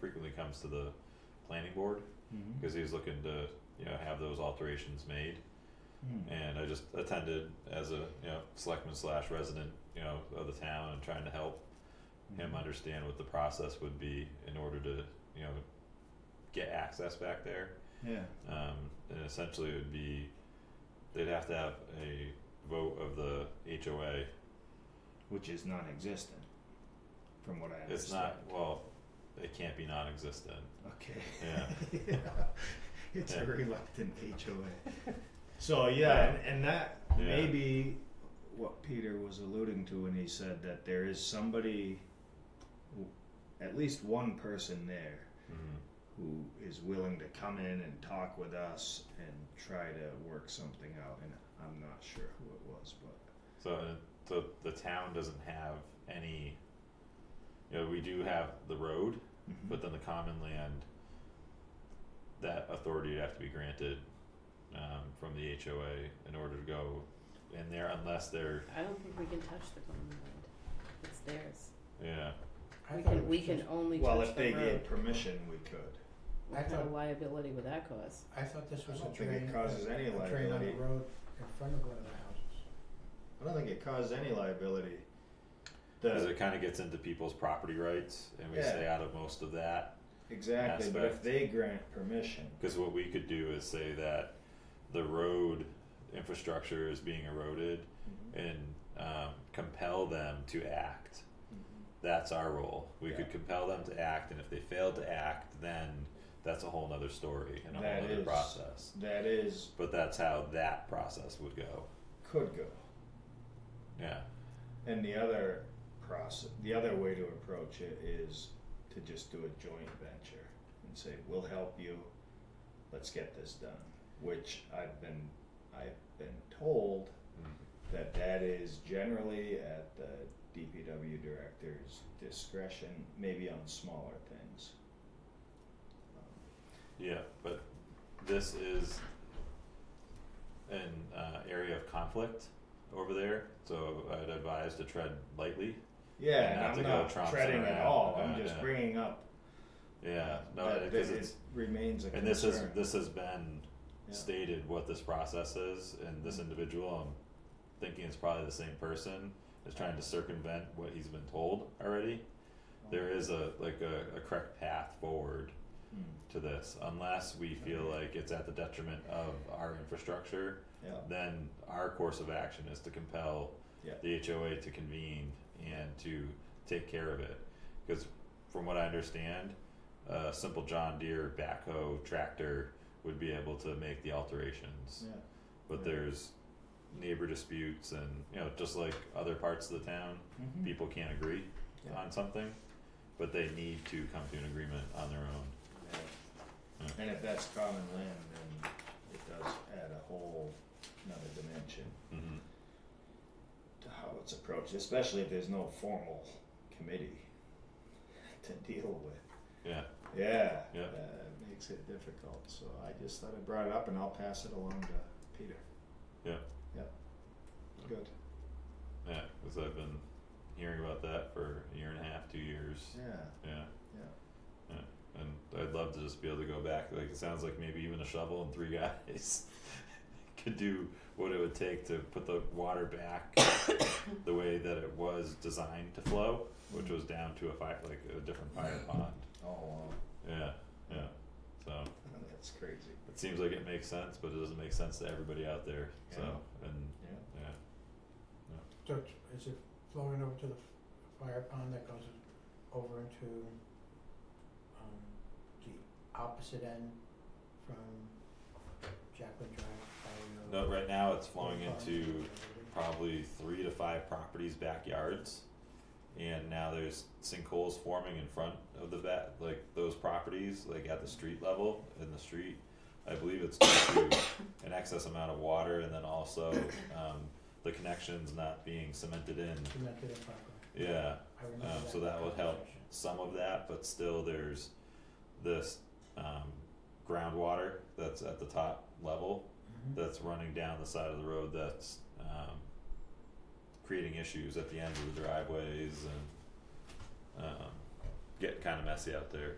frequently comes to the planning board, Mhm. cause he was looking to, you know, have those alterations made. Hmm. And I just attended as a, you know, selectman slash resident, you know, of the town and trying to help him Mm-hmm. understand what the process would be in order to, you know, get access back there. Yeah, Um, and essentially it would be, they'd have to have a vote of the HOA. which is non-existent, from what I understand. It's not, well, it can't be non-existent. Okay. Yeah. It's Yeah. a reluctant HOA. So yeah, and, and that Yeah. may be what Peter was alluding to when he said that there is somebody, w- at least one person there Mm-hmm, who is willing to come in and talk with us and try to work something out. And I'm not sure who it was, but so, uh, so the town doesn't have any, you know, we do have the road, Mm-hmm. But then the common land, that authority would have to be granted um from the HOA in order to go in there unless they're, I don't think we can touch the common land. It's theirs. yeah, I We thought it can, was we just- can only well, touch if they the road. gave permission, we could. I What kind of thought- liability would that cause? I thought this I was a don't think drain, it causes a any a drain on the liability. road in front of one of the houses. I don't think it caused any liability. cause The, it kinda gets into people's property rights and we Yeah. stay out of most of that. exactly, but aspect. if they grant permission, Cause what we could do is say that the road infrastructure is being eroded and um compel them to act. That's our role. We could Yeah. compel them to act and if they fail to act, then that's a whole nother story and a That whole nother is- process. that is But that's how that process would go. could go. Yeah. And the other process, the other way to approach it is to just do a joint venture and say, "We'll help you. Let's get this done." Which I've been, I've been told that that is generally at the DPW director's discretion, maybe on smaller things. Um, Yeah, but this is an uh, area of conflict over there, so I'd advise to tread lightly. Yeah, And not to and go I'm not trouncing treading at around. all. Yeah, I'm just yeah. bringing up Yeah, no, that, because that it's it remains a and this is concern. this has been Yeah. Mm-hmm. stated what this process is, and this individual, I'm thinking it's probably the same person, is trying to circumvent what he's been told already. There Mm-hmm. is a like a, a correct path forward Mm, to this, unless we feel like it's at the detriment of our infrastructure. yeah. then our course of action is to compel Oh. Yeah. the HOA to convene and to take care of it. Because from what I understand, a simple John Deere backhoe tractor would be able to make the alterations. Yeah. But Yeah. there's neighbor disputes and, you know, just like other parts of the town, Mhm. people can't agree Yeah. on something, but they need to come to an agreement on their own. Yeah. And if that's common land, then it does add a whole another dimension Mhm. to how it's approached, especially if there's no formal committee to deal with. Yeah, Yeah, Yeah. uh, it makes it difficult. So I just thought I brought it up, and I'll pass it along to Peter. Yeah. Yep. Good. yeah, because I've been hearing about that for a year and a half, two years. Yeah. Yeah. Yeah. Yeah. And I'd love to just be able to go back. Like it sounds like maybe even a shovel and three guys could do what it would take to put the water back the way that it was designed to flow, Mm-hmm. which was down to a fire like a different fire pond. Oh, wow. Yeah. Yeah. So that's crazy. it seems like it makes sense, but it doesn't make sense to everybody out there. So and Yeah. yeah. So it's, is it flowing over to the f- fire pond that goes over into, um, the opposite end from Jacqueline Drive, Fire No, Road? right now it's flowing Fire Pond, into whatever. probably three to five properties' backyards. And now there's sinkholes forming in front of the vet, like those properties, like at the street level, in the street. I believe it's due to an excess amount of water and then also, um, the connections not being cemented in. Cemented in properly. Yeah, I remember um, that. so that would help conversation. some of that, but still there's this, um, groundwater that's at the top level Mhm. that's running down the side of the road that's um, creating issues at the ends of the driveways and um, getting kind of messy out there.